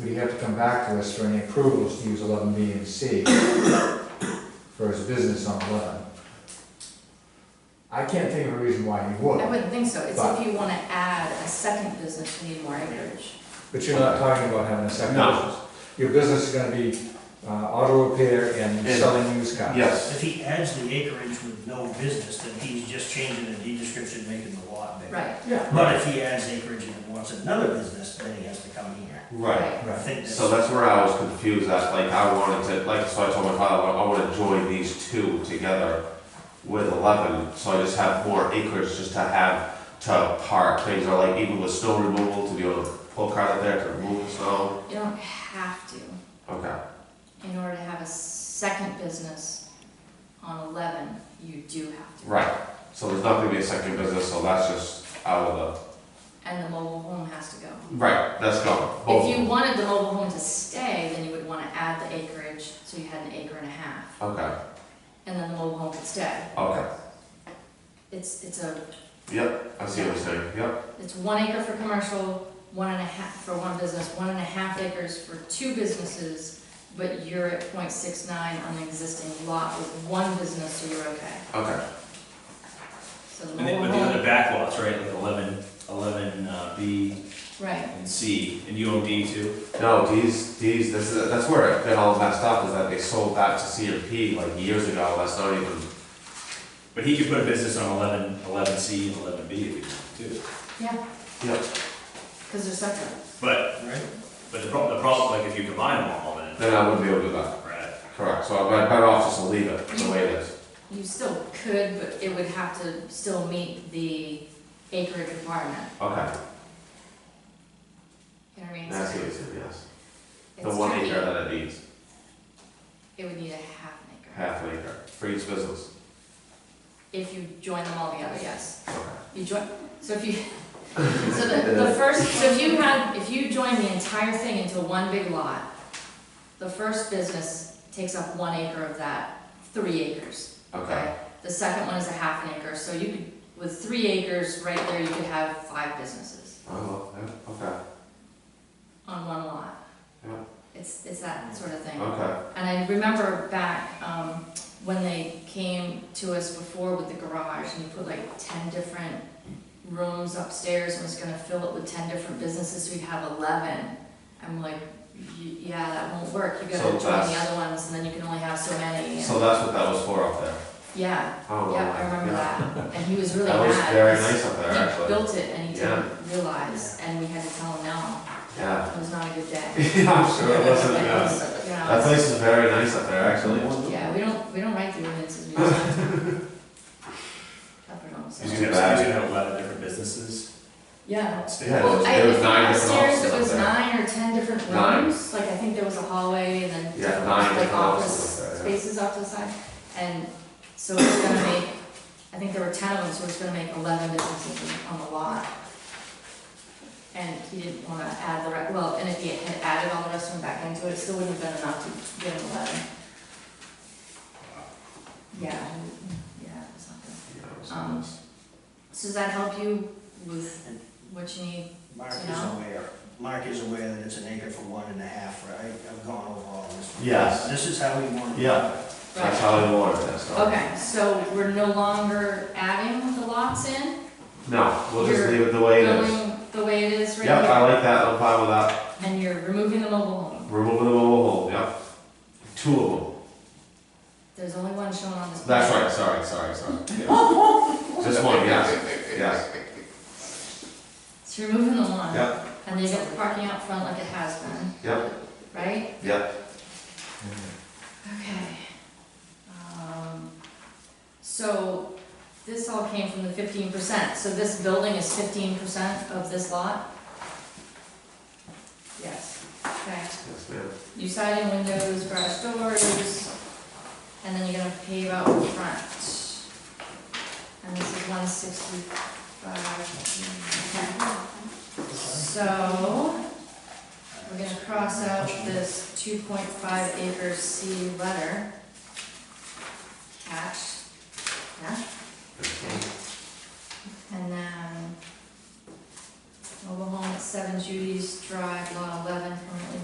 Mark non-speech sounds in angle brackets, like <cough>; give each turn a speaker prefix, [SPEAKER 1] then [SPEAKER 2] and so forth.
[SPEAKER 1] Would he have to come back to us for any approvals to use eleven B and C for his business on eleven? I can't think of a reason why he
[SPEAKER 2] I
[SPEAKER 1] would,
[SPEAKER 2] wouldn't think so, it's
[SPEAKER 1] But-
[SPEAKER 2] if you wanna add a second business, you need more acreage.
[SPEAKER 1] but you're not talking about having a second
[SPEAKER 3] No.
[SPEAKER 1] business. Your business is gonna be uh, auto repair and
[SPEAKER 3] And-
[SPEAKER 1] selling used cars.
[SPEAKER 3] Yes,
[SPEAKER 4] If he adds the acreage with no business, then he's just changing the deed description, making the lot bigger.
[SPEAKER 2] Right,
[SPEAKER 1] Yeah,
[SPEAKER 4] But if he adds acreage and wants another business, then he has to come here.
[SPEAKER 3] right.
[SPEAKER 4] I
[SPEAKER 1] right.
[SPEAKER 4] think
[SPEAKER 3] So
[SPEAKER 4] that's,
[SPEAKER 3] that's where I was confused at, like, I wanted to, like, so I told my father, I wanna join these two together with eleven, so I just have more acres just to have to park things, or like even with snow removal, to be able to pull cars out there to remove the snow.
[SPEAKER 2] you don't have to,
[SPEAKER 3] Okay,
[SPEAKER 2] in order to have a second business on eleven, you do have to.
[SPEAKER 3] right, so there's not gonna be a second business, so that's just out of
[SPEAKER 2] And the mobile home has to go.
[SPEAKER 3] the, right, that's gone, both.
[SPEAKER 2] If you wanted the mobile home to stay, then you would wanna add the acreage, so you had an acre and a half,
[SPEAKER 3] Okay,
[SPEAKER 2] and then the mobile home could stay.
[SPEAKER 3] okay,
[SPEAKER 2] It's, it's a,
[SPEAKER 3] yep, I see what you're saying, yep,
[SPEAKER 2] it's one acre for commercial, one and a half for one business, one and a half acres for two businesses, but you're at 0.69 on the existing lot with one business, so you're okay.
[SPEAKER 3] okay,
[SPEAKER 2] So the
[SPEAKER 5] And
[SPEAKER 2] mobile
[SPEAKER 5] then, but these are
[SPEAKER 2] home,
[SPEAKER 5] the back lots, right, like eleven, eleven, uh, B
[SPEAKER 2] right,
[SPEAKER 5] and C, and you own D too?
[SPEAKER 3] no, these, these, this is, that's where it got all messed up, is that they sold that to CMP like years ago, that's not even
[SPEAKER 5] But he could put a business on eleven, eleven C and eleven B if he wanted to.
[SPEAKER 2] yeah,
[SPEAKER 3] Yep,
[SPEAKER 2] because they're separate.
[SPEAKER 5] But,
[SPEAKER 4] right?
[SPEAKER 5] but the problem, the problem, like if you combine them all, then,
[SPEAKER 3] then I wouldn't be able to do that,
[SPEAKER 5] right,
[SPEAKER 3] correct, so I'm better off just to leave it the way it is.
[SPEAKER 2] You still could, but it would have to still meet the acreage requirement,
[SPEAKER 3] Okay,
[SPEAKER 2] you know what I mean?
[SPEAKER 3] that's what you said, yes. The
[SPEAKER 2] It's
[SPEAKER 3] one
[SPEAKER 2] tricky.
[SPEAKER 3] acre that it needs,
[SPEAKER 2] It would need a half an acre,
[SPEAKER 3] half an acre, for each business,
[SPEAKER 2] if you join them all together, yes.
[SPEAKER 3] okay.
[SPEAKER 2] You join, so
[SPEAKER 3] <laughs>
[SPEAKER 2] if you, so the, the first, so if you had, if you join the entire thing into one big lot, the first business takes up one acre of that, three acres,
[SPEAKER 3] Okay,
[SPEAKER 2] okay? The second one is a half an acre, so you could, with three acres right there, you could have five businesses
[SPEAKER 3] oh, yeah, okay,
[SPEAKER 2] on one lot.
[SPEAKER 3] Yeah.
[SPEAKER 2] It's, it's that sort of thing.
[SPEAKER 3] okay,
[SPEAKER 2] And I remember back, um, when they came to us before with the garage, and you put like ten different rooms upstairs, and was gonna fill it with ten different businesses, so we'd have eleven. I'm like, y- yeah, that won't work, you
[SPEAKER 3] So
[SPEAKER 2] gotta join the
[SPEAKER 3] that's-
[SPEAKER 2] other ones, and then you can only have so many,
[SPEAKER 3] so
[SPEAKER 2] and,
[SPEAKER 3] that's what that was for up there.
[SPEAKER 2] yeah,
[SPEAKER 3] Oh,
[SPEAKER 2] yeah, I
[SPEAKER 3] wow,
[SPEAKER 2] remember
[SPEAKER 3] yeah.
[SPEAKER 2] that, and he
[SPEAKER 3] <laughs>
[SPEAKER 2] was really
[SPEAKER 3] That
[SPEAKER 2] mad.
[SPEAKER 3] was very
[SPEAKER 2] 'cause
[SPEAKER 3] nice up there,
[SPEAKER 2] He
[SPEAKER 3] actually,
[SPEAKER 2] built it and he
[SPEAKER 3] Yeah.
[SPEAKER 2] didn't realize, and we had to tell him no,
[SPEAKER 3] yeah. <laughs>
[SPEAKER 2] it was not a good day.
[SPEAKER 3] Yeah, I'm <laughs> sure it wasn't,
[SPEAKER 2] It <laughs>
[SPEAKER 3] yeah.
[SPEAKER 2] was, you know,
[SPEAKER 3] That place is very nice up there, actually.
[SPEAKER 2] Yeah, we don't, we don't write the ordinances, we just. Up and on, so-
[SPEAKER 5] he's gonna have, he's gonna have eleven different businesses
[SPEAKER 2] Yeah.
[SPEAKER 5] upstairs.
[SPEAKER 3] Yeah, there
[SPEAKER 2] Well,
[SPEAKER 3] was,
[SPEAKER 2] I,
[SPEAKER 3] there
[SPEAKER 2] if
[SPEAKER 3] was nine different
[SPEAKER 2] upstairs, it
[SPEAKER 3] offices
[SPEAKER 2] was
[SPEAKER 3] up there.
[SPEAKER 2] nine or ten different
[SPEAKER 3] Nine.
[SPEAKER 2] rooms, like I think there was a hallway and then
[SPEAKER 3] Yeah,
[SPEAKER 2] different,
[SPEAKER 3] nine
[SPEAKER 2] like
[SPEAKER 3] different
[SPEAKER 2] office
[SPEAKER 3] offices up there, yeah.
[SPEAKER 2] spaces off to the side. And so it's gonna make, I think there were ten of them, so it's gonna make eleven businesses on the lot. And he didn't wanna add the, re- well, and if he had added all the rest of them back into it, it still wouldn't have been enough to get an eleven. Yeah, yeah, it's not good.
[SPEAKER 3] Yeah, it was
[SPEAKER 2] Um,
[SPEAKER 3] nice.
[SPEAKER 2] So does that help you with what you need?
[SPEAKER 4] Mark is
[SPEAKER 2] No.
[SPEAKER 4] aware, Mark is aware that it's an acre for one and a half, right? I've gone over all this.
[SPEAKER 3] Yes.
[SPEAKER 4] This is how we want it.
[SPEAKER 3] Yeah. That's how they wanted it, so.
[SPEAKER 2] Okay, so we're no longer adding the lots in?
[SPEAKER 3] No, we'll just
[SPEAKER 2] You're
[SPEAKER 3] leave it the way it is.
[SPEAKER 2] Going the way it is right
[SPEAKER 3] Yep, I
[SPEAKER 2] now?
[SPEAKER 3] like that, I'm fine with that.
[SPEAKER 2] And you're removing the mobile home?
[SPEAKER 3] Removing the mobile home, yep. Two of them.
[SPEAKER 2] There's only one shown on this.
[SPEAKER 3] That's
[SPEAKER 2] plan.
[SPEAKER 3] right, sorry,
[SPEAKER 2] <laughs>
[SPEAKER 3] sorry, sorry. Yeah. Just one, yes, yes.
[SPEAKER 2] So you're removing the one?
[SPEAKER 3] Yep,
[SPEAKER 2] And they get the parking out front like it has been,
[SPEAKER 3] yep,
[SPEAKER 2] right?
[SPEAKER 3] yep.
[SPEAKER 2] Okay. Um, So this all came from the fifteen percent, so this building is fifteen percent of this lot? Yes, okay.
[SPEAKER 3] Yes, ma'am.
[SPEAKER 2] You siding windows, garage doors, and then you're gonna pave out in front. And this is one sixty-five. So, we're gonna cross out this two point five acre C letter. Attached, yeah, and then mobile home at seven Judy's Drive, lot eleven,